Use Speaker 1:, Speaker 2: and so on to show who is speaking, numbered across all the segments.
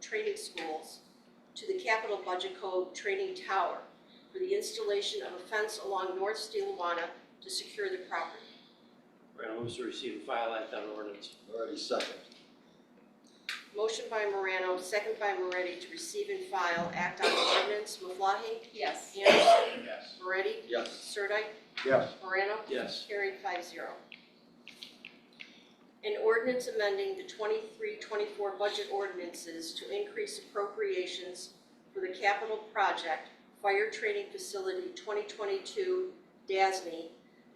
Speaker 1: training schools to the Capital Budget Code Training Tower for the installation of a fence along North Steelawana to secure the property.
Speaker 2: Morano moves to receive and file Act on Ordinance.
Speaker 3: Moretti second.
Speaker 1: Motion by Morano, second by Moretti to receive and file Act on Ordinance. Maflahe?
Speaker 4: yes,
Speaker 1: Anderson?
Speaker 5: yes,
Speaker 1: Moretti?
Speaker 3: Yes.
Speaker 1: Sirdike?
Speaker 3: Yes.
Speaker 1: Morano?
Speaker 2: Yes.
Speaker 1: Carried five zero. An ordinance amending the 23-24 budget ordinances to increase appropriations for the capital project Fire Training Facility twenty twenty-two DASME, E,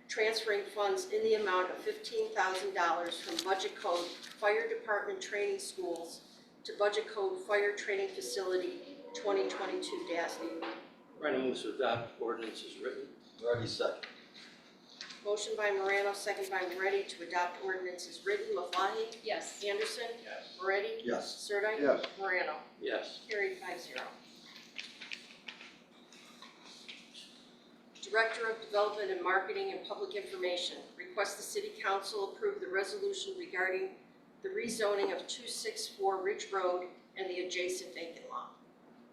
Speaker 1: transferring funds in the amount of fifteen thousand dollars from Budget Code Fire Department Training Schools to Budget Code Fire Training Facility twenty twenty-two DASME.
Speaker 2: Morano moves to adopt ordinance as written.
Speaker 3: Moretti second.
Speaker 1: Motion by Morano, second by Moretti to adopt ordinance as written. Maflahe?
Speaker 4: yes,
Speaker 1: Anderson,
Speaker 5: yes,
Speaker 1: Moretti,
Speaker 3: Yes.
Speaker 1: Sirdike.
Speaker 3: Yes.
Speaker 1: Morano.
Speaker 2: Yes.
Speaker 1: Carried five zero. Director of Development and Marketing and Public Information requests the City Council approve the resolution regarding the rezoning of two six four Ridge Road and the adjacent vacant lot.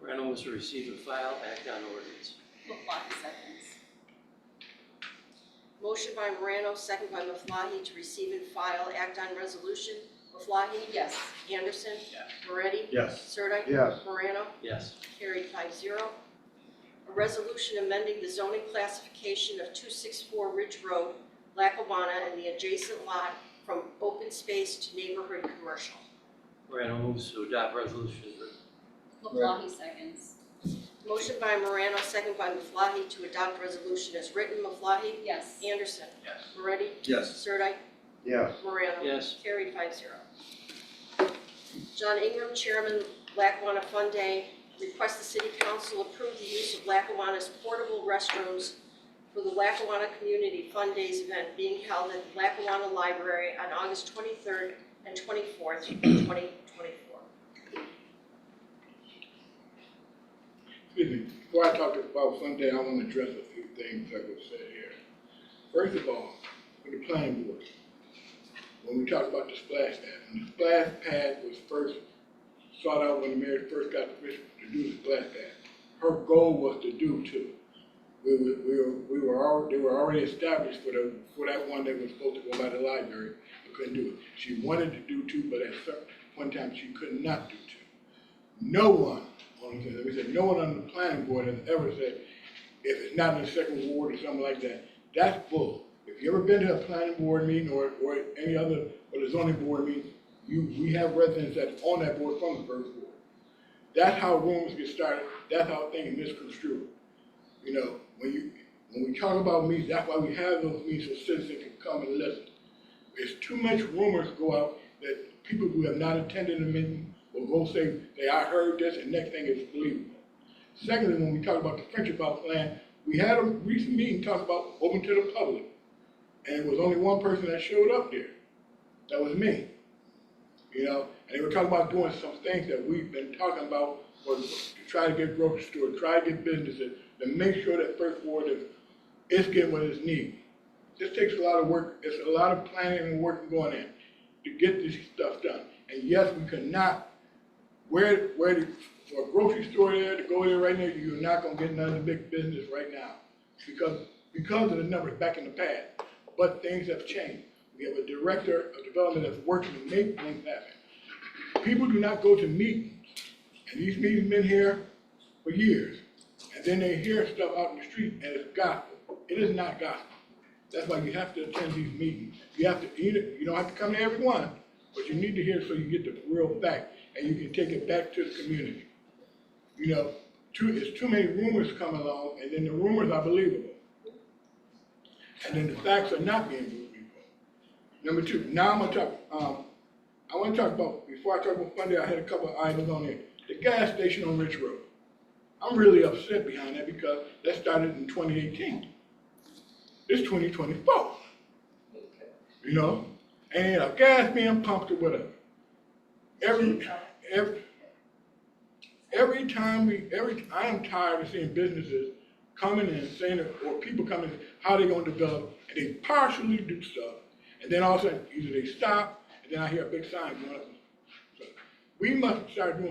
Speaker 2: Morano moves to receive and file Act on Ordinance.
Speaker 4: Maflahe seconds,
Speaker 1: Motion by Morano, second by Maflahe to receive and file act on resolution. Maflahe,
Speaker 4: yes,
Speaker 1: Anderson,
Speaker 5: yes,
Speaker 1: Moretti,
Speaker 3: Yes.
Speaker 1: Sirdike.
Speaker 3: Yes.
Speaker 1: Morano.
Speaker 2: Yes.
Speaker 1: Carried five zero. A resolution amending the zoning classification of two six four Ridge Road, Lackawanna, and the adjacent lot from open space to neighborhood commercial.
Speaker 2: Morano moves to adopt resolution as written.
Speaker 4: Maflahe seconds,
Speaker 1: Motion by Morano, second by Maflahe to adopt resolution as written. Maflahe?
Speaker 4: yes,
Speaker 1: Anderson?
Speaker 5: yes.
Speaker 1: Moretti?
Speaker 3: Yes.
Speaker 1: Sirdike?
Speaker 3: Yes.
Speaker 1: Morano?
Speaker 2: Yes.
Speaker 1: Carried five zero. John Ingram, Chairman, Lackawanna Fun Day, requests the City Council approve the use of Lackawanna's portable restrooms for the Lackawanna Community Fun Days event being held at the Lackawanna Library on August 23rd and 24th, 2024.
Speaker 6: Excuse me, before I talk about Sunday, I want to address a few things that were said here. First of all, with the planning board, when we talked about the splash pad, when the splash pad was first sought out when the mayor first got permission to do the splash pad, her goal was to do two. We were, we were, we were al- they were already established for the, for that one that was supposed to go by the library, but couldn't do it. She wanted to do two, but at some point in time, she could not do two no one on the, we said, no one on the planning board has ever said, if it's not in the second ward or something like that, that's bull. If you ever been to a planning board meeting or, or any other, or the zoning board meeting, you, we have residents that's on that board from the first ward. That's how rumors get started, that's how things misconstrued. You know, when you, when we talk about meetings, that's why we have those meetings so citizens can come and listen. There's too much rumors go out that people who have not attended a meeting will go say, hey, I heard this, and next thing is believable. Secondly, when we talk about the friendship house plan, we had a recent meeting talking about open to the public. And it was only one person that showed up there. That was me. You know, and they were talking about doing some things that we've been talking about was to try to get grocery stores, try to get businesses, to make sure that First Ward is, is getting what it needs. This takes a lot of work, it's a lot of planning and work going in to get this stuff done. And yes, we cannot, where, where, the- for a grocery store there to go there right now, you're not gonna get none of the big business right now. Because, because of the numbers back in the past, but things have changed. We have a director of development that's working to make things happen. People do not go to meetings, and these meetings been here for years. And then they hear stuff out in the street and it's gospel. It is not gospel. That's why you have to attend these meetings. You have to, you don't- you don't have to come to every one, but you need to hear so you get the real fact and you can take it back to the community. You know, too, it's too many rumors come along and then the rumors are believable. And then the facts are not being believable. Number two, now I'm gonna talk, um, I wanna talk about, before I talk about Funday, I had a couple of items on there. The gas station on Rich Road. I'm really upset behind that because that started in twenty eighteen it's twenty twenty-four. You know, and a gas being pumped or whatever. Every, every, every time we, every, I am tired of seeing businesses coming in and saying, that- or people coming, how they gonna develop, and they partially do stuff, and then all of a sudden, either they stop, and then I hear a big sign going up. So, We must start doing